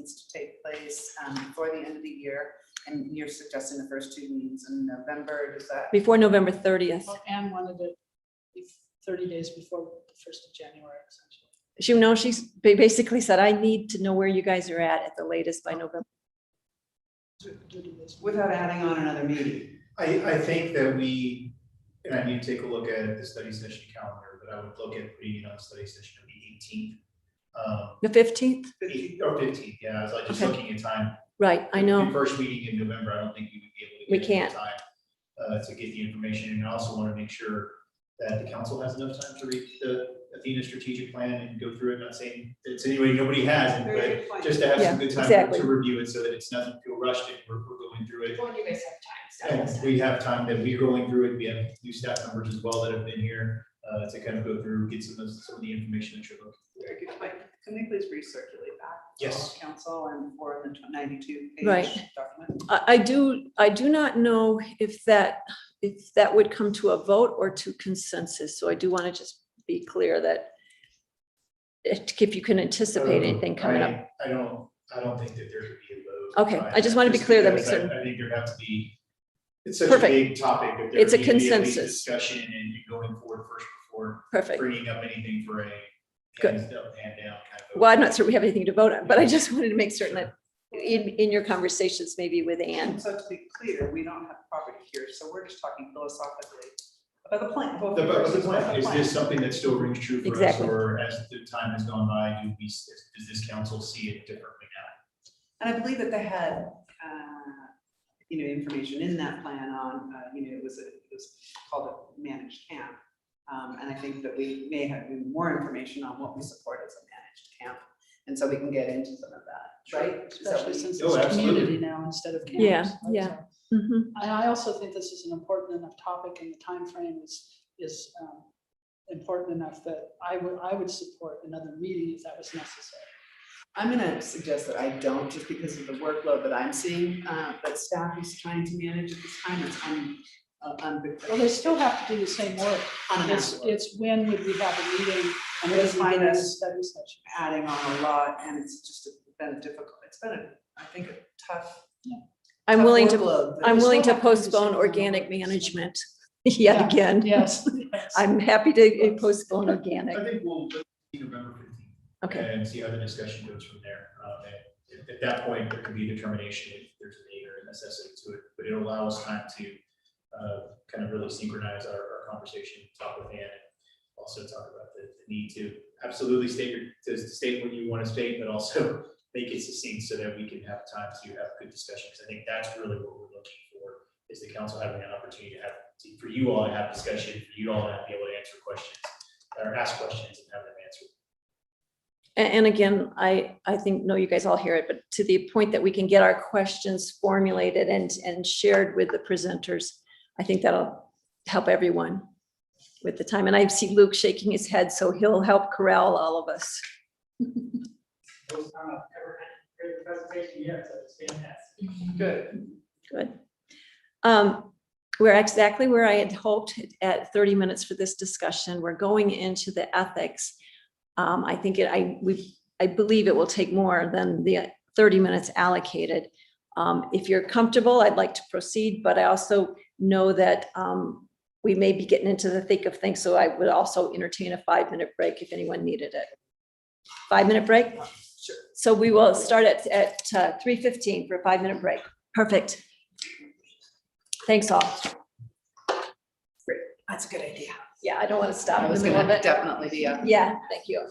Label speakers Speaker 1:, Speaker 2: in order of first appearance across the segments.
Speaker 1: needs to take place um, before the end of the year, and you're suggesting the first two meetings in November, is that?
Speaker 2: before November thirtieth.
Speaker 3: Well, Anne wanted it be- thirty days before the first of January, essentially.
Speaker 2: She, no, she's ba- basically said, I need to know where you guys are at at the latest by November.
Speaker 3: to- to do this.
Speaker 4: without adding on another meeting.
Speaker 5: I, I think that we, and I need to take a look at the study session calendar, but I would look at putting it on study session of the eighteenth. Um,
Speaker 2: The fifteenth?
Speaker 5: eight- or fifteenth, yeah, I was like just
Speaker 2: Okay.
Speaker 5: looking at time.
Speaker 2: Right, I
Speaker 5: The
Speaker 2: know.
Speaker 5: First meeting in November, I don't think we would be able to.
Speaker 2: We
Speaker 5: get enough
Speaker 2: can't.
Speaker 5: Time, uh, to get the information, and I also want to make sure that the council has enough time to read the Athena strategic plan and go through it, not saying, it's anyway, nobody has,
Speaker 4: Very
Speaker 5: but
Speaker 4: good point.
Speaker 5: just to have
Speaker 2: Yeah,
Speaker 5: some good time to-
Speaker 2: exactly.
Speaker 5: to review it, so that it's nothing feel rushed, and we're, we're going through it.
Speaker 6: Well, you guys have time, so.
Speaker 5: And we have time that we're going through it. We have new staff members as well that have been here uh, to kind of go through, get some of, the- some of the information that you're looking.
Speaker 1: Very good point. Can we please recirculate that? to
Speaker 5: Yes.
Speaker 1: all Council and for the ninety-two
Speaker 2: Right.
Speaker 1: page document.
Speaker 2: I, I do, I do not know if that, if that would come to a vote or to consensus. So I do want to just be clear that it- if you can anticipate anything coming up.
Speaker 5: Mm-hmm. I I don't, I don't think that there could be a vote.
Speaker 2: Okay,
Speaker 5: on
Speaker 2: I just
Speaker 5: that,
Speaker 2: wanna be clear that
Speaker 5: because
Speaker 2: makes certain-
Speaker 5: I I think there have to be, it's such a
Speaker 2: Perfect.
Speaker 5: big topic that there
Speaker 2: It's a
Speaker 5: need to be at least
Speaker 2: consensus.
Speaker 5: Discussion and going forward first before
Speaker 2: Perfect.
Speaker 5: bringing up anything for a
Speaker 2: Good.
Speaker 5: hands up, hand down kind of. vote.
Speaker 2: Well, I'm not sure we have anything to vote on, but I just wanted to make certain that in, in your conversations, maybe with Anne,
Speaker 1: And so to be clear, we don't have property here, so we're just talking philosophically about the plan.
Speaker 5: The, but the point, is this something that still rings true for us,
Speaker 2: Exactly.
Speaker 5: or as the time has gone by, do we, s- does this council see it differently now?
Speaker 1: And I believe that they had, uh, you know, information in that plan on, uh, you know, it was, a- it was called a managed camp. Um, And I think that we may have more information on what we support as a managed camp. And so we can get into some of that, right? Is that what
Speaker 3: Especially
Speaker 1: you-
Speaker 3: since
Speaker 5: Oh,
Speaker 3: it's
Speaker 5: absolutely.
Speaker 3: community now instead of campus.
Speaker 2: Yeah,
Speaker 3: right?
Speaker 2: yeah.
Speaker 3: So-
Speaker 2: Mhm,
Speaker 3: And I also think this is an important enough topic and the time frame is, is um, important enough that I would, I would support another meeting if that was necessary.
Speaker 1: I'm gonna suggest that I don't, just because of the workload that I'm seeing, uh, that staff is trying to manage at this time, it's on, uh, on.
Speaker 3: Well, they still have to do the same work.
Speaker 1: on an
Speaker 3: It's,
Speaker 1: hour.
Speaker 3: it's when would we have a meeting and when
Speaker 1: It's
Speaker 3: is we do a
Speaker 1: minus-
Speaker 3: study session?
Speaker 1: adding on a lot, and it's just been a difficult, it's been, a, I think, a tough.
Speaker 2: I'm
Speaker 1: tough
Speaker 2: willing to,
Speaker 1: workload, but
Speaker 2: I'm
Speaker 1: it's-
Speaker 2: willing to
Speaker 3: still have to do
Speaker 2: postpone
Speaker 3: something.
Speaker 2: organic management yet
Speaker 3: Yeah,
Speaker 2: again.
Speaker 3: Yes.
Speaker 2: I'm happy to postpone organic.
Speaker 5: I think we'll, let's see November fifteenth.
Speaker 2: Okay,
Speaker 5: And see how the discussion goes from there. Um, and At, at that point, there could be a determination if there's a need or a necessity to it, but it allows time to uh, kind of really synchronize our, our conversation, talk with Ann, and also talk about the, the need to absolutely state your, to state what you want to state, but also make it succinct so that we can have time to have good discussions. I think that's really what we're looking for, is the council having an opportunity to have, to- for you all to have discussion, for you all to be able to answer questions, or ask questions and have them answered.
Speaker 2: A- and, again, I, I think, no, you guys all hear it, but to the point that we can get our questions formulated and, and shared with the presenters, I think that'll help everyone with the time. And I see Luke shaking his head, so he'll help corral all of us.
Speaker 7: First time I've ever had a great presentation yet, so it's fantastic.
Speaker 1: Good.
Speaker 2: Good. Um, We're exactly where I had hoped at 30 minutes for this discussion. We're going into the ethics. Um, I think it, I, we, I believe it will take more than the 30 minutes allocated. Um, If you're comfortable, I'd like to proceed, but I also know that um, we may be getting into the thick of things, so I would also entertain a five-minute break if anyone needed it. Five-minute break? Sure. So we will start at, at uh, 3:15 for a five-minute break. Perfect. Thanks all.
Speaker 1: That's a good idea.
Speaker 2: Yeah, I don't want to stop
Speaker 1: I
Speaker 2: in the
Speaker 1: was
Speaker 2: middle
Speaker 1: gonna
Speaker 2: of it.
Speaker 1: definitely be up.
Speaker 2: Yeah, thank you.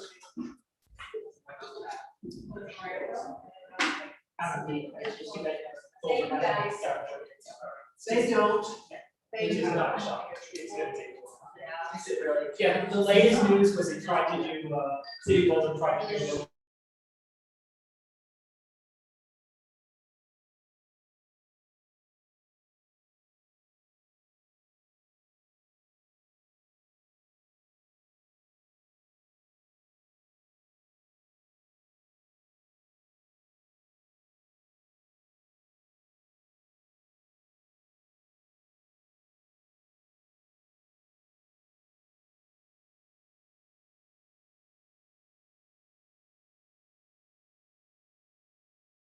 Speaker 6: Thank you, guys.
Speaker 1: They don't.
Speaker 7: It's just not a shock. It's gonna take a while. Yeah, the latest news was they tried to do, uh, City Golden tried to do